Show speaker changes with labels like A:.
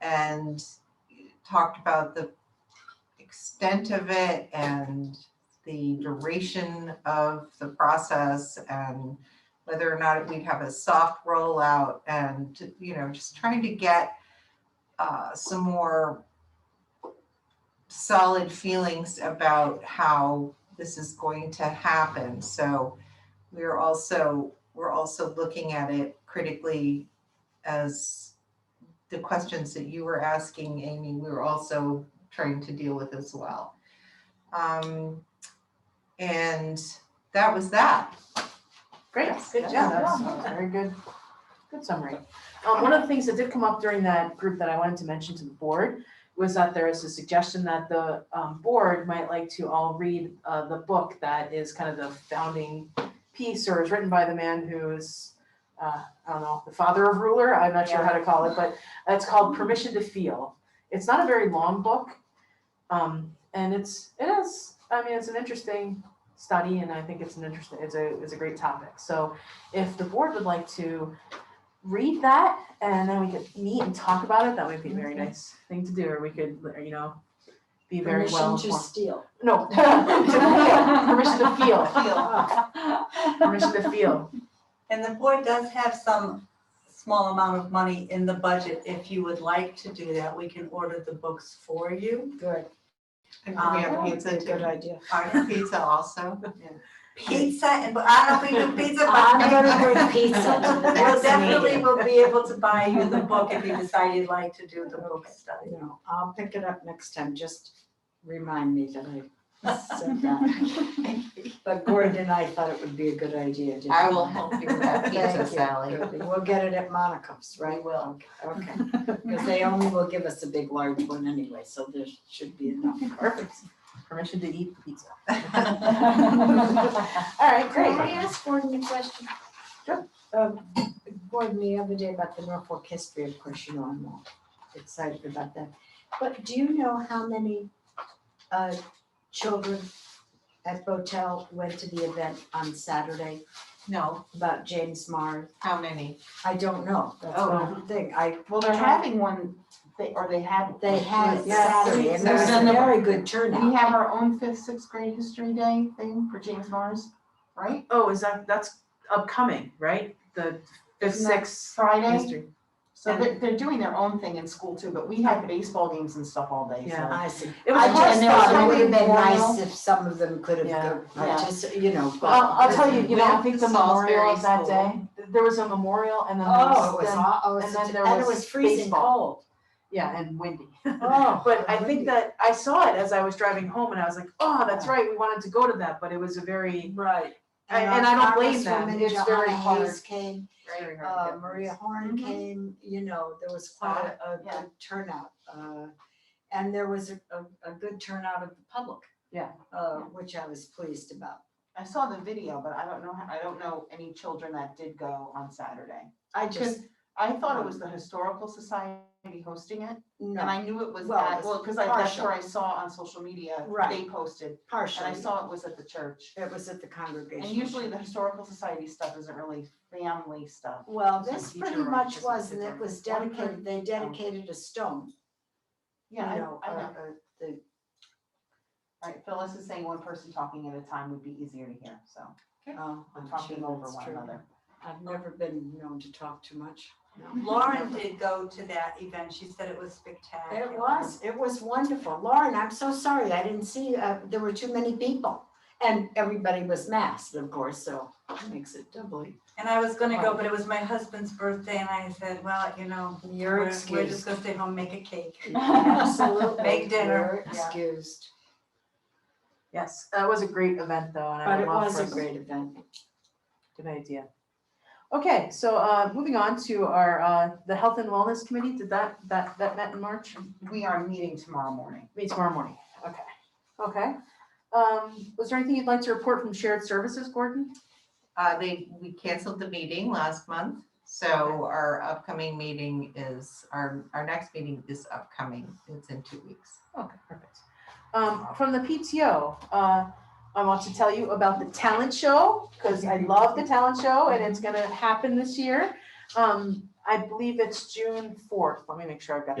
A: and talked about the extent of it and the duration of the process and whether or not we'd have a soft rollout and, you know, just trying to get uh, some more solid feelings about how this is going to happen. So we're also, we're also looking at it critically as the questions that you were asking, Amy, we were also trying to deal with as well. Um, and that was that.
B: Great, good
A: Yeah,
B: job.
A: that's-
B: That's a very good, good summary. Um, one of the things that did come up during that group that I wanted to mention to the board was that there is a suggestion that the, um, board might like to all read, uh, the book that is kind of the founding piece or is written by the man who's, uh, I don't know, the father of ruler, I'm not sure how to call it, but it's called Permission to Feel. It's not a very long book. Um, and it's, it is, I mean, it's an interesting study and I think it's an interesting, it's a, it's a great topic. So if the board would like to read that and then we could meet and talk about it, that would be a very nice thing to do, or we could, you know, be very well.
C: Permission to
B: informed.
C: steal.
B: No, to feel, permission to feel, permission to feel.
D: And the board does have some small amount of money in the budget. If you would like to do that, we can order the books for you.
C: Good.
A: And we have
D: Um,
A: pizza
C: Good
A: too.
C: idea.
A: Our pizza also.
D: Pizza and, but I don't think the pizza, but.
C: I'm gonna bring pizza to the
D: We'll
C: next
D: definitely
C: meeting.
D: will be able to buy you the book if you decide you'd like to do the book study.
C: You know, I'll pick it up next time, just remind me that I said that. But Gordon and I thought it would be a good idea, didn't we?
A: I will help you with that pizza,
C: Thank you.
A: Sally.
C: We'll get it at Monica's, right? Will. Okay, because they only will give us a big large one anyway, so there should be enough.
B: Perfect. Permission to eat pizza.
C: All right,
E: Can I ask Gordon a question?
C: Um, Gordon, the other day about the Norfolk history, of course, you know, I'm all excited about that. But do you know how many uh children at Botel went to the event on Saturday
A: No,
C: about James Mars?
A: how many?
C: I don't know, that's
A: Oh.
C: one thing, I,
F: Well, they're having one, they, or they had.
C: they had it
F: Yeah.
C: Saturday, and there was a
F: Saturday.
C: very good
F: We
C: turnout.
F: have our own fifth, sixth grade history day thing for James Mars, right?
B: Oh, is that, that's upcoming, right? The fifth,
F: Isn't that
B: sixth
F: Friday,
B: history.
F: so they're, they're doing their own thing in school too, but we had baseball games and stuff all day, so.
B: Yeah.
C: I see.
B: It was
C: I
B: a hard
C: just
B: spot.
C: thought it would have been
F: Memorial.
C: nice if some of them could have,
B: Yeah.
C: go- I
F: Yeah.
C: just, you know, but.
F: I'll, I'll tell you, you know, I
A: With
F: think
A: the
F: the
A: Salisbury
F: memorial of that
A: School.
F: day, there was a memorial and then there
C: Oh,
F: was,
C: it was
F: then-
C: hot, oh,
F: and then
C: it's-
F: there
C: and it
F: was
C: was freezing
F: baseball.
C: cold.
B: yeah, and windy.
C: Oh.
B: But I think that I saw it as I was driving home and I was like, oh, that's right, we wanted to go to that, but it was a very,
C: Right.
B: and and I don't blame them,
C: And
B: it's very
C: Johanna
B: hard.
C: Hayes came,
B: very hard to
C: uh,
B: get
C: Maria
B: things.
C: Horn
F: Mhm.
C: came, you know, there was
F: Saw
C: quite
F: it,
C: a
F: Uh, yeah.
C: good turnout, uh, and there was a, a, a good turnout of the public.
B: Yeah.
C: Uh, which I was pleased about.
F: I saw the video, but I don't know, how- I don't know any children that did go on Saturday.
C: I
F: Because
C: just,
F: I thought it was the Historical Society hosting it, and
C: no,
F: I knew it was
C: Well,
F: at,
C: it's
F: well, because I, that's
C: partial.
F: where I saw on social media,
C: Right.
F: they posted, and I
C: partially,
F: saw it was at the church.
C: it was at the congregation.
F: And usually the Historical Society stuff isn't really family stuff.
C: Well,
F: some
C: this
F: teacher
C: pretty
F: or
C: much
F: just a
C: was, and it
F: different-
C: was
F: Well, I'm
C: dedicated, they dedicated a stone, you
F: Yeah, I
C: know,
F: know, I
C: uh,
F: know.
C: uh, the,
F: All right, Phyllis is saying one person talking at a time would be easier to hear, so
C: oh,
F: we're
C: I'm
F: talking
C: sure
F: over
C: that's
F: one
C: true.
F: another.
C: I've never been known to talk too much.
D: Lauren did go to that event. She said it was spectacular.
C: It was, it was wonderful. Lauren, I'm so sorry, I didn't see, uh, there were too many people. And everybody was masked, of course, so makes it doubly.
D: And I was gonna go, but it was my husband's birthday and I said, well, you know,
C: You're
D: we're, we're just
C: excused.
D: gonna stay home, make a cake.
C: Absolutely.
D: Make dinner,
C: You're
D: yeah.
C: excused.
B: Yes, that was a great event though, and I
C: But
B: would
C: it
B: love
C: was
B: for
C: a
B: us-
C: great event.
B: Good idea. Okay, so uh moving on to our uh the Health and Wellness Committee, did that that that met in March?
F: We are meeting tomorrow morning.
B: Meet tomorrow morning, okay, okay. Um was there anything you'd like to report from shared services, Gordon?
A: Uh, they, we canceled the meeting last month, so our upcoming meeting is, our, our next meeting is upcoming. It's in two weeks.
B: Okay, perfect. Um from the PTO, uh I want to tell you about the talent show, because I love the talent show and it's gonna happen this year. Um I believe it's June fourth, let me make sure I've got